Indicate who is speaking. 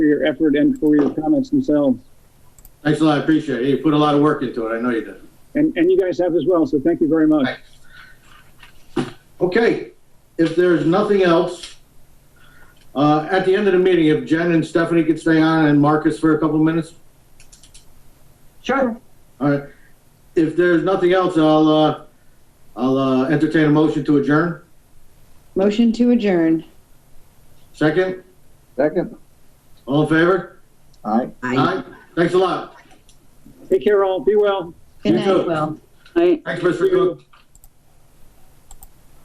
Speaker 1: your effort and for your comments themselves.
Speaker 2: Thanks a lot, I appreciate it. You put a lot of work into it, I know you did.
Speaker 1: And, and you guys have as well, so thank you very much.
Speaker 2: Okay, if there's nothing else, uh, at the end of the meeting, if Jen and Stephanie could stay on and Marcus for a couple minutes?
Speaker 3: Sure.
Speaker 2: All right, if there's nothing else, I'll, uh, I'll, uh, entertain a motion to adjourn.
Speaker 3: Motion to adjourn.
Speaker 2: Second,
Speaker 4: Second.
Speaker 2: all in favor?
Speaker 4: Aye.
Speaker 2: Aye. Thanks a lot.
Speaker 1: Take care all, be well.
Speaker 3: Good
Speaker 2: You
Speaker 3: night,
Speaker 2: too.
Speaker 3: Will.
Speaker 2: Thanks, Mr. Cook.